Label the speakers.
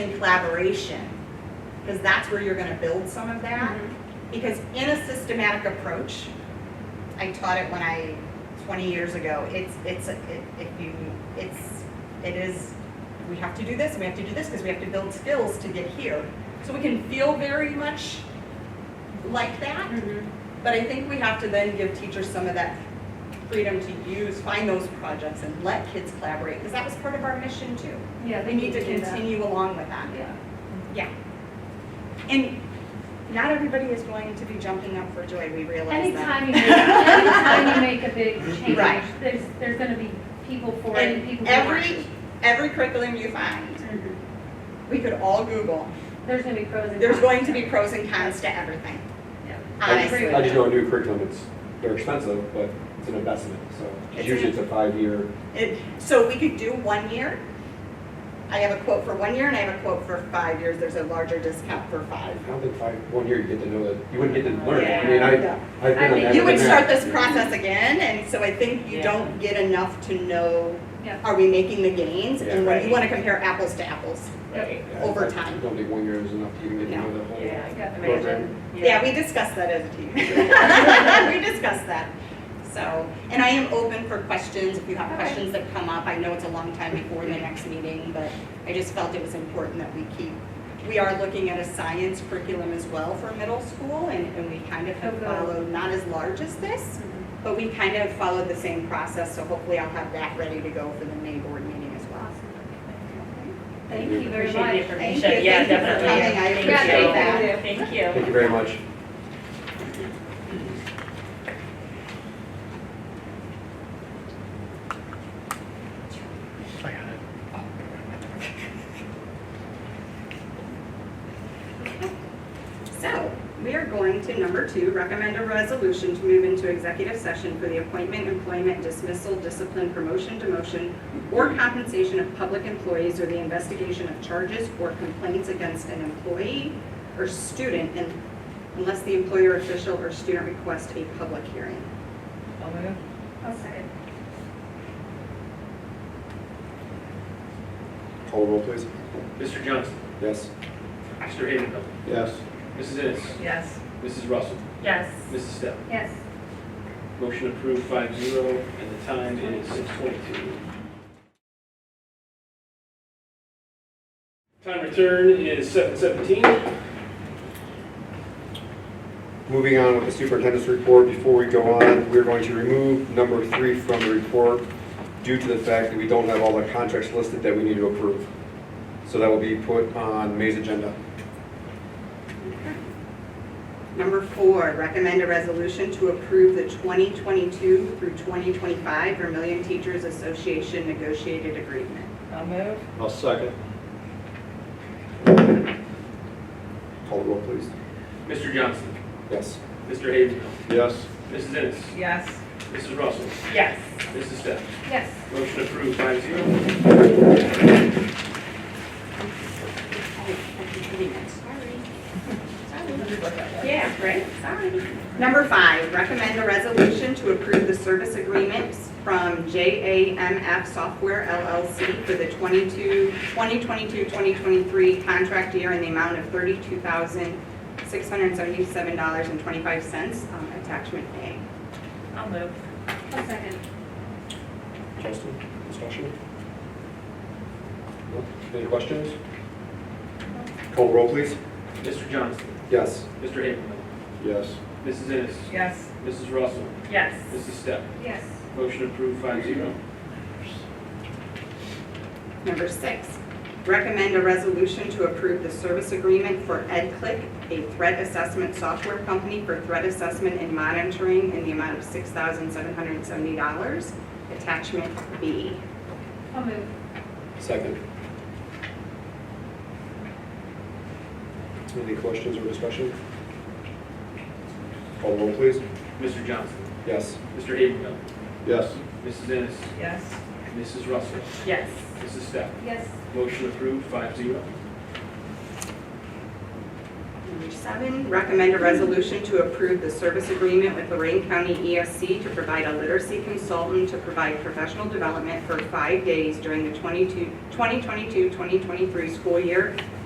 Speaker 1: in collaboration, because that's where you're gonna build some of that. Because in a systematic approach, I taught it when I, twenty years ago, it's, it's, a- it- if you, it's, it is, we have to do this, we have to do this, because we have to build skills to get here. So we can feel very much like that, but I think we have to then give teachers some of that freedom to use, find those projects and let kids collaborate, because that was part of our mission too.
Speaker 2: Yeah,
Speaker 1: We need to continue along with that.
Speaker 2: Yeah.
Speaker 1: Yeah. And not everybody is going to be jumping up for joy, we realize that.
Speaker 2: Anytime you make, anytime you make a big change,
Speaker 1: Right.
Speaker 2: there's, there's gonna be people for it and people
Speaker 1: And
Speaker 2: who aren't.
Speaker 1: every, every curriculum you find,
Speaker 2: Mhm.
Speaker 1: we could all Google,
Speaker 2: There's gonna be pros and cons.
Speaker 1: there's going to be pros and cons to everything,
Speaker 2: Yeah.
Speaker 3: I
Speaker 1: honestly.
Speaker 3: I just know a new curriculum, it's, they're expensive, but it's an investment, so
Speaker 1: It's
Speaker 3: it's usually it's a five-year,
Speaker 1: It- So we could do one year. I have a quote for one year and I have a quote for five years, there's a larger discount for
Speaker 3: I
Speaker 1: five.
Speaker 3: don't think five, one year you get to know that, you wouldn't get to learn.
Speaker 1: Yeah.
Speaker 3: I mean, I,
Speaker 1: Yeah.
Speaker 3: I've
Speaker 2: I
Speaker 3: been on
Speaker 2: think
Speaker 3: that.
Speaker 1: You would
Speaker 3: with
Speaker 1: start
Speaker 3: that.
Speaker 1: this process again, and so I think you don't get enough to know,
Speaker 2: Yeah.
Speaker 1: are we making the gains? And
Speaker 3: Yeah.
Speaker 1: when you want to compare apples to apples.
Speaker 2: Yep.
Speaker 3: Yeah, I-
Speaker 1: over
Speaker 3: I
Speaker 1: time.
Speaker 3: don't think one year is enough to even get to
Speaker 1: No.
Speaker 3: know the whole.
Speaker 2: Yeah, I got the
Speaker 3: program.
Speaker 2: imagine.
Speaker 1: Yeah, we discussed that as a team. We discussed that. So, and I am open for questions, if you have
Speaker 2: Okay.
Speaker 1: questions that come up. I know it's a long time before the next meeting, but I just felt it was important that we keep. We are looking at a science curriculum as well for middle school, and, and we kind of have
Speaker 2: Oh, good.
Speaker 1: followed, not as large as this, but we kind of followed the same process, so hopefully I'll have that ready to go for the May board meeting as well.
Speaker 2: Awesome. Thank you very
Speaker 4: Appreciate the
Speaker 2: much.
Speaker 4: information.
Speaker 1: Thank you.
Speaker 4: Yeah,
Speaker 1: Thank you for
Speaker 4: definitely.
Speaker 1: coming. I
Speaker 4: Thank
Speaker 2: appreciate
Speaker 4: you.
Speaker 1: that.
Speaker 4: Thank you.
Speaker 3: Thank you very much.
Speaker 1: So, we are going to number two, recommend a resolution to move into executive session for the appointment, employment, dismissal, discipline, promotion, demotion, or compensation of public employees or the investigation of charges or complaints against an employee or student and- unless the employer, official, or student requests a public hearing.
Speaker 2: I'll second.
Speaker 3: Call roll, please.
Speaker 5: Mr. Johnson.
Speaker 3: Yes.
Speaker 5: Mr. Havenfeld.
Speaker 3: Yes.
Speaker 5: Mrs. Ennis.
Speaker 4: Yes.
Speaker 5: Mrs. Russell.
Speaker 4: Yes.
Speaker 5: Mrs. Steph.
Speaker 2: Yes.
Speaker 5: Motion approved five zero, and the time is six twenty-two. Time return is seven seventeen.
Speaker 3: Moving on with the superintendent's report, before we go on, we're going to remove number three from the report due to the fact that we don't have all the contracts listed that we need to approve. So that will be put on May's agenda.
Speaker 1: Number four, recommend a resolution to approve the 2022 through 2025 Vermillion Teachers Association negotiated agreement.
Speaker 4: I'll move.
Speaker 3: I'll second. Call roll, please.
Speaker 5: Mr. Johnson.
Speaker 3: Yes.
Speaker 5: Mr. Havenfeld.
Speaker 3: Yes.
Speaker 5: Mrs. Ennis.
Speaker 4: Yes.
Speaker 5: Mrs. Russell.
Speaker 4: Yes.
Speaker 5: Mrs. Steph.
Speaker 2: Yes.
Speaker 5: Motion approved five zero.
Speaker 1: Yeah, right, sorry. Number five, recommend a resolution to approve the service agreements from JAMF Software LLC for the 22 2022-2023 contract year in the amount of $32,677.25, um, attachment A.
Speaker 4: I'll move.
Speaker 2: I'll second.
Speaker 3: Justin, discussion? No? Any questions? Call roll, please.
Speaker 5: Mr. Johnson.
Speaker 3: Yes.
Speaker 5: Mr. Havenfeld.
Speaker 3: Yes.
Speaker 5: Mrs. Ennis.
Speaker 4: Yes.
Speaker 5: Mrs. Russell.
Speaker 4: Yes.
Speaker 5: Mrs. Steph.
Speaker 2: Yes.
Speaker 5: Motion approved five zero.
Speaker 1: Number six, recommend a resolution to approve the service agreement for EdClick, a threat assessment software company for threat assessment and monitoring in the amount of $6,770. Attachment B.
Speaker 2: I'll move.
Speaker 3: Second. Any questions or discussion? Call roll, please.
Speaker 5: Mr. Johnson.
Speaker 3: Yes.
Speaker 5: Mr. Havenfeld.
Speaker 3: Yes.
Speaker 5: Mrs. Ennis.
Speaker 4: Yes.
Speaker 5: Mrs. Russell.
Speaker 4: Yes.
Speaker 5: Mrs. Steph.
Speaker 2: Yes.
Speaker 5: Motion approved, five zero.
Speaker 1: Number seven, recommend a resolution to approve the service agreement with Lorraine County ESC to provide a literacy consultant to provide professional development for five days during the 22 2022-2023 school year